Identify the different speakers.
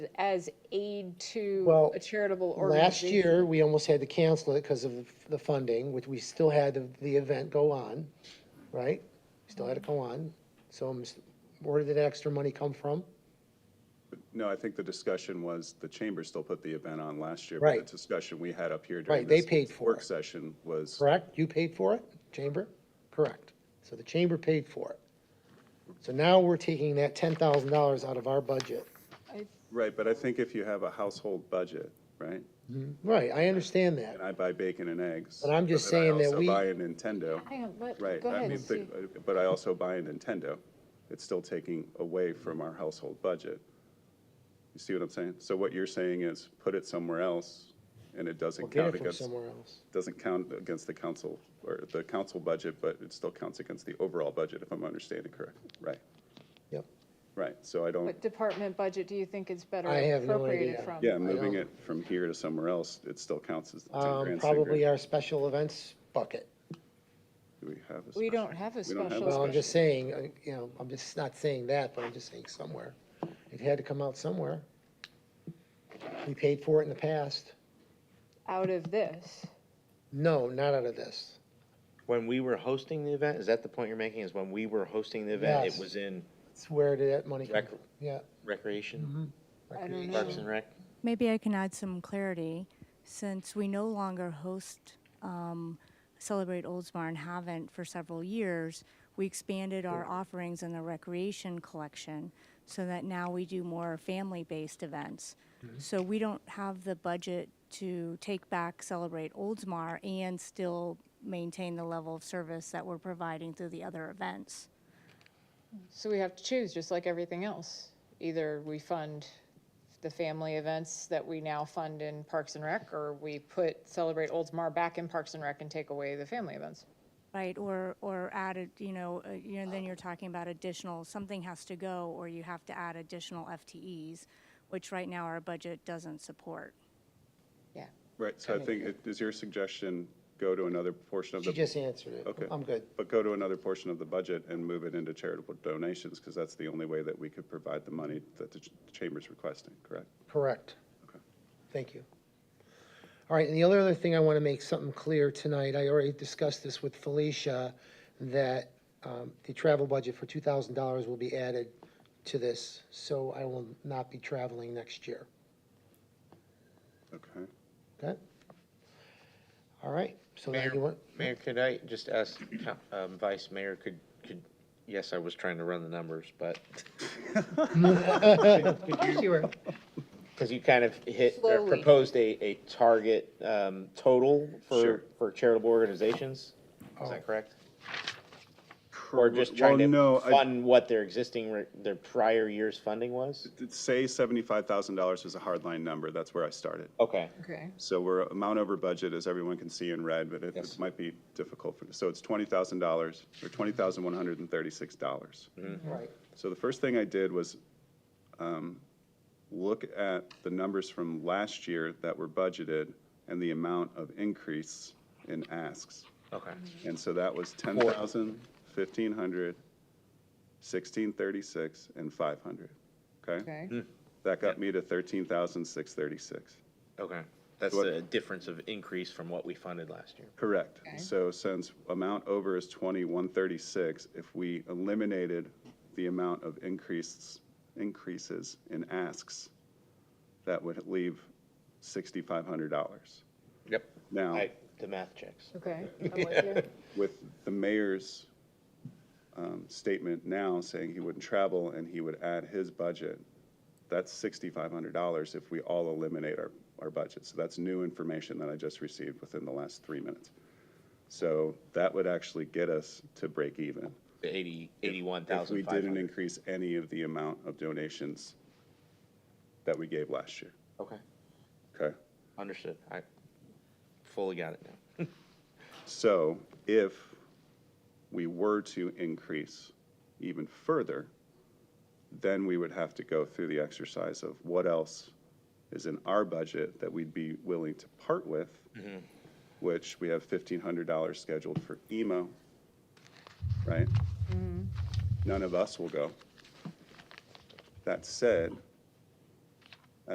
Speaker 1: as aid to
Speaker 2: Well,
Speaker 1: a charitable
Speaker 2: Last
Speaker 1: organization?
Speaker 2: year, we almost had to cancel it because of the- the funding, which we still had the, the event go on, right? Still had it go on. So I'm s- where did that extra money come from?
Speaker 3: No, I think the discussion was, the chamber still put the event on last year.
Speaker 2: Right.
Speaker 3: But the discussion we had up here
Speaker 2: Right,
Speaker 3: during
Speaker 2: they
Speaker 3: this
Speaker 2: paid for
Speaker 3: work
Speaker 2: it.
Speaker 3: session was,
Speaker 2: Correct? You paid for it, chamber? Correct. So the chamber paid for it. So now we're taking that ten thousand dollars out of our budget.
Speaker 1: I-
Speaker 3: right, but I think if you have a household budget, right?
Speaker 2: Right, I understand that.
Speaker 3: And I buy bacon and eggs.
Speaker 2: But I'm just saying that we-
Speaker 3: I also buy a Nintendo,
Speaker 1: Hang on, let,
Speaker 3: right?
Speaker 1: go
Speaker 3: I
Speaker 1: ahead,
Speaker 3: mean,
Speaker 1: Steve.
Speaker 3: the- But I also buy a Nintendo. It's still taking away from our household budget. You see what I'm saying? So what you're saying is, put it somewhere else, and it
Speaker 2: We'll
Speaker 3: doesn't
Speaker 2: get
Speaker 3: count
Speaker 2: it from
Speaker 3: against,
Speaker 2: somewhere else.
Speaker 3: doesn't count against the council, or the council budget, but it still counts against the overall budget, if I'm understanding correct, right?
Speaker 2: Yep.
Speaker 3: Right, so I don't,
Speaker 1: What department budget do you think is better
Speaker 2: I have no
Speaker 1: appropriated
Speaker 2: idea.
Speaker 1: from?
Speaker 3: yeah, moving
Speaker 2: don't-
Speaker 3: it from here to somewhere else, it still counts as. the 10
Speaker 2: Um,
Speaker 3: grand
Speaker 2: probably
Speaker 3: cigarette.
Speaker 2: our special events bucket.
Speaker 3: Do we have a
Speaker 1: We don't
Speaker 3: special-
Speaker 1: have a
Speaker 3: we don't
Speaker 1: special
Speaker 2: Well, I'm just saying, uh, you know, I'm just not saying that, but I'm just saying somewhere. It had to come out somewhere. We paid for it in the past.
Speaker 1: Out of this?
Speaker 2: No, not out of this.
Speaker 4: When we were hosting the event, is that the point you're making, is when we were hosting the event,
Speaker 2: Yes.
Speaker 4: it was in
Speaker 2: It's where did that money come
Speaker 4: Rec-
Speaker 2: from? Yeah.
Speaker 4: recreation,
Speaker 1: I don't know.
Speaker 4: Parks and Rec?
Speaker 5: Maybe I can add some clarity, since we no longer host um, Celebrate Oldsmar and haven't for several years. We expanded our offerings in the recreation collection so that now we do more family-based events. So we don't have the budget to take back Celebrate Oldsmar and still maintain the level of service that we're providing through the other events.
Speaker 1: So we have to choose, just like everything else. Either we fund the family events that we now fund in Parks and Rec, or we put Celebrate Oldsmar back in Parks and Rec and take away the family events.
Speaker 5: Right, or, or added, you know, uh, you know, then you're talking about additional, something has to go, or you have to add additional FTEs, which right now our budget doesn't support.
Speaker 1: Yeah.
Speaker 3: Right, so I think, it- is your suggestion go to another portion of the?
Speaker 2: She just answered it.
Speaker 3: Okay.
Speaker 2: I'm good.
Speaker 3: But go to another portion of the budget and move it into charitable donations, because that's the only way that we could provide the money that the ch- chamber's requesting, correct?
Speaker 2: Correct. Thank you. All right, and the other other thing I want to make something clear tonight, I already discussed this with Felicia, that um, the travel budget for two thousand dollars will be added to this, so I will not be traveling next year.
Speaker 3: Okay.
Speaker 2: Okay? All right, so now
Speaker 4: Mayor,
Speaker 2: you want,
Speaker 4: Mayor, could I just ask, co- um, Vice Mayor, could, could, yes, I was trying to run the numbers, but, because you kind of hit, or
Speaker 1: Slowly.
Speaker 4: proposed a, a target, um, total
Speaker 3: Sure.
Speaker 4: for, for charitable organizations, is that correct? Or just
Speaker 3: Oh. Well,
Speaker 4: trying
Speaker 3: no,
Speaker 4: to
Speaker 3: I-
Speaker 4: fund what their existing, re- their prior year's funding was?
Speaker 3: Say seventy-five thousand dollars is a hardline number, that's where I started.
Speaker 4: Okay,
Speaker 1: Okay.
Speaker 3: So we're amount over budget, as everyone can see in red, but it- it
Speaker 4: Yes.
Speaker 3: might be difficult for, so it's twenty thousand dollars, or twenty thousand one hundred and thirty-six dollars.
Speaker 2: right,
Speaker 3: So the first thing I did was um, look at the numbers from last year that were budgeted and the amount of increase in asks.
Speaker 4: okay.
Speaker 3: And so that was 10,000, 1,500, 1,636, and 500, okay?
Speaker 1: Okay.
Speaker 3: That got me to 13,636.
Speaker 4: Okay, that's
Speaker 3: What-
Speaker 4: the difference of increase from what we funded last year.
Speaker 3: Correct.
Speaker 1: Okay.
Speaker 3: So since amount over is 2136, if we eliminated the amount of increases, increases in asks, that would leave $6,500.
Speaker 4: Yep.
Speaker 3: Now,
Speaker 4: I, the math checks.
Speaker 1: Okay. I'm with you.
Speaker 3: with the mayor's um, statement now saying he wouldn't travel and he would add his budget, that's $6,500 if we all eliminate our, our budget. So that's new information that I just received within the last three minutes. So that would actually get us to break even.
Speaker 4: The eighty, eighty-one
Speaker 3: If we
Speaker 4: thousand five
Speaker 3: didn't
Speaker 4: hundred.
Speaker 3: increase any of the amount of donations that we gave last year,
Speaker 4: Okay,
Speaker 3: okay?
Speaker 4: understood. I fully got it now.
Speaker 3: So if we were to increase even further, then we would have to go through the exercise of what else is in our budget that we'd be willing to part with, which we have $1,500 scheduled for E emo, right? None of us will go. That said,